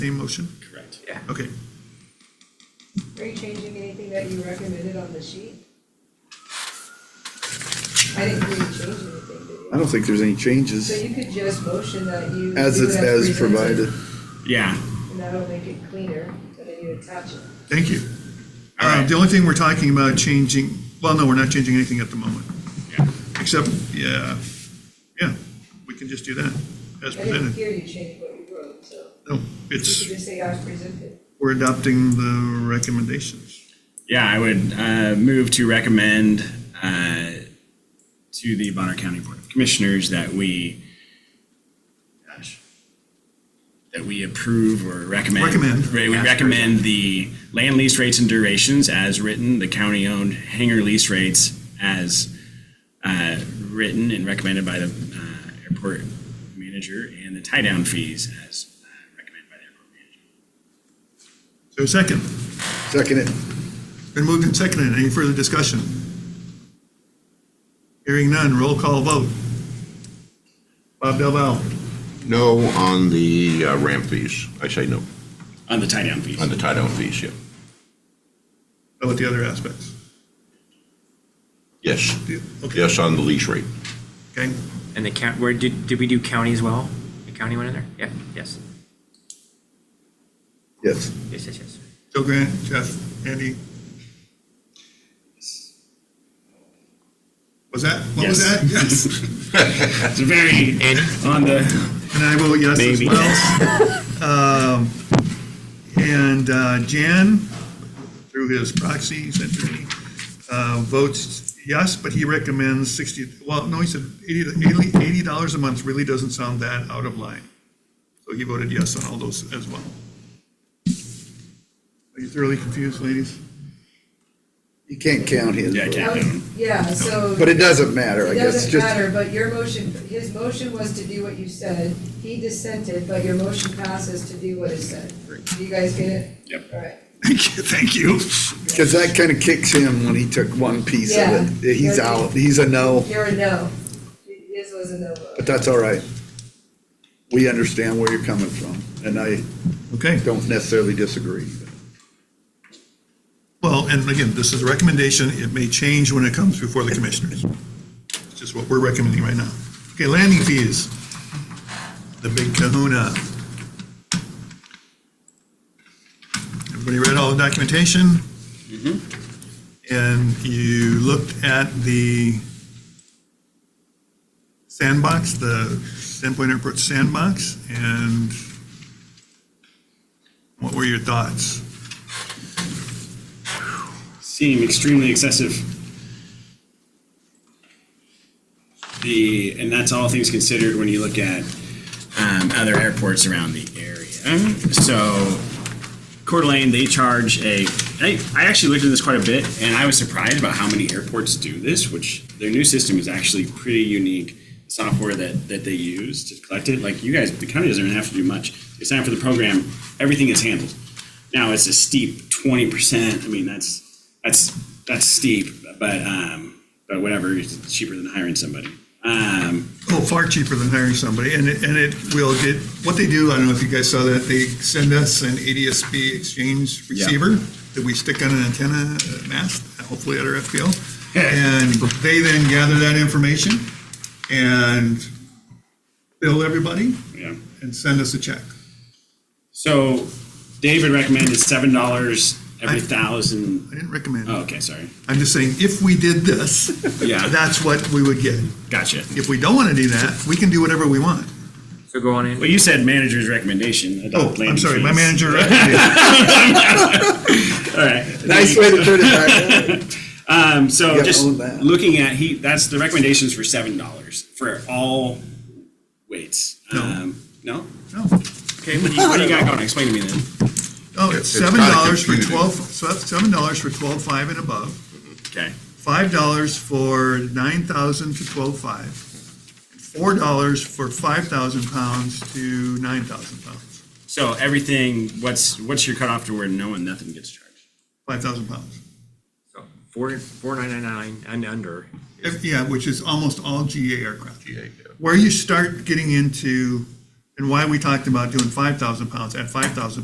Same motion? Correct. Okay. Are you changing anything that you recommended on the sheet? I didn't hear you change anything, did you? I don't think there's any So changes you could just motion that you. as do it's as presented, provided. Yeah, And that'll make it cleaner, and then you attach it. Thank you. All Uh, right. The only thing we're talking about changing, well, no, we're not changing anything at the moment, yeah. except, yeah, yeah, we can just do that as I didn't presented. hear you change what you wrote, so No, you could it's, just say as presented. we're adopting the recommendations. Yeah, I would uh, move to recommend uh, to the Bonner County Board of Commissioners that we, gosh, that we approve or recommend. Recommend. Right, We recommend the land lease rates and durations as written, the county-owned hangar lease rates as uh, written and recommended by the uh, airport manager, and the tie-down fees as uh, recommended by the airport manager. So second, Second it. been moved and seconded. Any further discussion? Hearing none, roll call vote. Bob Del Valle. No on the uh, ramp fees. I say no, On the tie-down fees. on the tie-down fees, yeah. How about the other aspects? Yes, Do you- Okay. yes on the lease rate. Okay, And the count, where, did, did we do county as well? The county went in there? Yeah, yes, Yes. yes, yes, yes. Joe Grant, Jeff, Andy. Was that, what was Yes. that? Yes. It's very, on the, And I vote yes as Maybe. well. Um, And uh, Jan, through his proxy, he sent to me, uh, votes yes, but he recommends 60, well, no, he said 80 to- 80 dollars a month really doesn't sound that out of line. So he voted yes on all those as well. Are you thoroughly confused, ladies? You can't count his. Yeah, I vote. can't. Um, Yeah, so. But it doesn't matter, I It guess. doesn't Just, matter, but your motion, his motion was to do what you said, he dissented, but your motion passes to do what is said. Do you guys get it? Yep. All right. Thank you, thank you. because that kind of kicks him when he took one piece Yeah. of it. He's out. He's a no, You're a no. His was a no vote. but that's all right. We understand where you're coming from, and I Okay. don't necessarily disagree. Well, and again, this is a recommendation. It may change when it comes before the commissioners. It's just what we're recommending right now. Okay, landing fees. The big kahuna. Everybody read all the documentation? And you looked at the sandbox, the Sandpoint Airport sandbox, and what were your thoughts? seem extremely excessive. The, and that's all things considered when you look at um, other airports around the area. So Coeur d'Alene, they charge a, I, I actually looked at this quite a bit and I was surprised about how many airports do this, which their new system is actually pretty unique. Software that, that they use to collect it, like you guys, the county doesn't even have to do much. They sign up for the program, everything is handled. Now it's a steep twenty percent. I mean, that's that's that's steep, but um, but whatever. It's cheaper than hiring somebody. Um, Oh, far cheaper than hiring somebody, and it, and it will get, what they do, I don't know if you guys saw that, they send us an ADSB exchange receiver that we stick on an antenna uh, mast, hopefully at our FPL, and they then gather that information and bill everybody yeah. and send us a check. So David recommended seven dollars every I- thousand. I didn't recommend Oh, it. okay, sorry. I'm just saying, if we did this, Yeah. that's what we would get. Gotcha. If we don't want to do that, we can do whatever we want. So go on Well, in. you said manager's recommendation. Oh, adopt I'm landing sorry, my fees. manager, All right. Nice way to put it back. Um, so gotta just own that. looking at he, that's the recommendations for seven dollars for all weights. No. Um, no. no. Okay. What do, you, what do you got going? Explain to me then. Oh, it's It's seven kinda dollars for confusing. twelve, seven dollars for twelve five and above, Okay. five dollars for nine thousand to twelve five, four dollars for five thousand pounds to nine thousand pounds, So everything, what's, what's your cutoff to where no one, nothing gets charged? five thousand pounds. So Four, four nine nine nine and under. If- Yeah, which is almost all GA aircraft. Yeah, yeah. Where you start getting into and why we talked about doing 5,000 pounds at 5,000